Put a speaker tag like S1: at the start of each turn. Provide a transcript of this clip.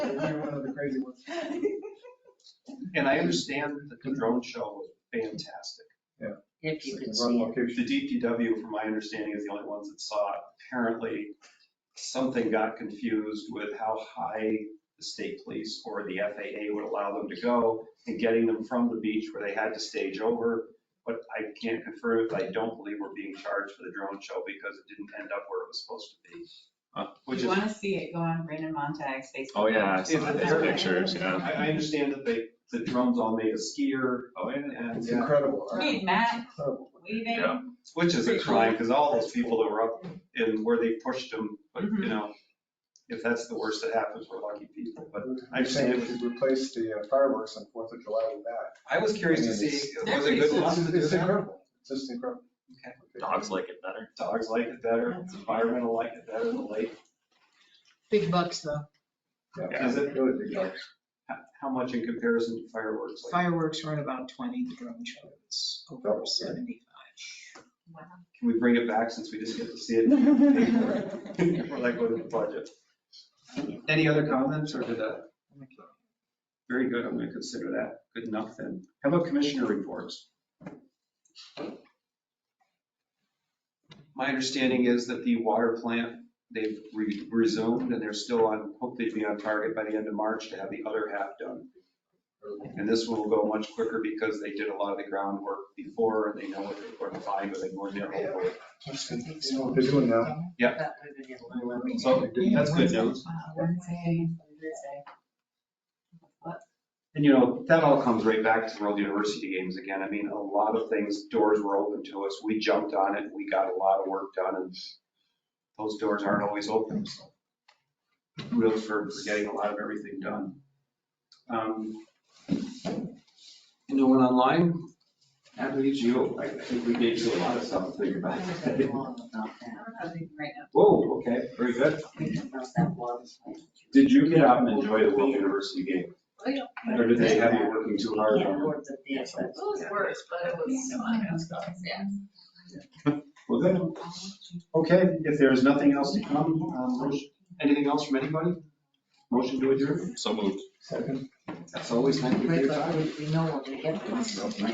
S1: crazy ones. And I understand that the drone show was fantastic.
S2: If you could
S3: It's like a
S2: see
S3: run
S2: it.
S3: location.
S1: The DPW, from my understanding, is the only ones that saw it. Apparently, something got confused with how high the state police or the FAA would allow them to go and getting them from the beach where they had to stage over. But I can't confirm it, but I don't believe we're being charged for the drone show because it didn't end up where it was supposed to be.
S4: Huh.
S1: Which
S5: You
S1: is
S5: want to see it go on Brandon Montag's Facebook.
S4: Oh, yeah, I saw
S1: Yeah,
S4: those
S1: they're-
S4: pictures, yeah.
S1: I, I understand that they, the drums all made a skier,
S4: Oh, yeah.
S1: and,
S3: It's
S1: yeah,
S3: incredible.
S5: Read Matt
S3: Incredible.
S4: Yeah.
S5: leaving.
S1: which is a crime, because all those people that were up in where they pushed them, but, you
S5: Mhm.
S1: know, if that's the worst that happens, we're lucky people, but
S3: I'm
S1: I've seen
S3: saying
S1: it.
S3: we should replace the uh, fireworks on Fourth of July with that.
S1: I was curious to see, was it good
S3: It's
S1: fun to do
S3: it's
S1: that?
S3: incredible. It's just incredible.
S1: Okay.
S4: Dogs like it better.
S1: Dogs like it better, environmental like it better, the lake,
S2: Big bucks though.
S3: Yeah,
S1: Is it-
S3: really big dogs.
S1: how, how much in comparison to fireworks? Like,
S2: Fireworks are at about 20, the drone show is over
S3: Double, yeah.
S2: 75.
S5: Wow.
S1: Can we bring it back since we just get to see it? and pay for it? We're like, what is the budget? Any other comments or did that? Very good, I'm gonna consider that good enough then. How about commissioner reports? My understanding is that the water plant, they've re- resumed and they're still on, hopefully be on target by the end of March to have the other half done. And this one will go much quicker because they did a lot of the groundwork before and they know what they're going to find, but they go in there. hopefully.
S3: That's good. You know what they're doing now?
S1: Yeah.
S2: That would have been a little-
S1: So that's good news.
S5: Wow, Wednesday, Thursday. What?
S1: And you know, that all comes right back to the World University Games again. I mean, a lot of things, doors were open to us. We jumped on it. We got a lot of work done and those doors aren't always open. So Kudos for for getting a lot of everything done. Um, Anyone online? That leaves you. I think we gave you a lot of stuff to think
S2: I
S1: about.
S2: was at the wall about that.
S5: I don't know, right now.
S1: Whoa, okay, very good.
S2: About that wall.
S1: Did you get out and enjoy the World University game?
S5: Oh,
S1: Or did they have you working too hard?
S2: Yeah, towards the theater.
S5: It was worse, but it was. Yeah.
S1: Well, good. Okay, if there is nothing else to come, um, motion- anything else from anybody? Motion to adjourn?
S4: So moved.
S3: Second.
S1: That's always, thank you for
S2: Right,
S1: your
S2: but
S1: time.
S2: we- we know what we get.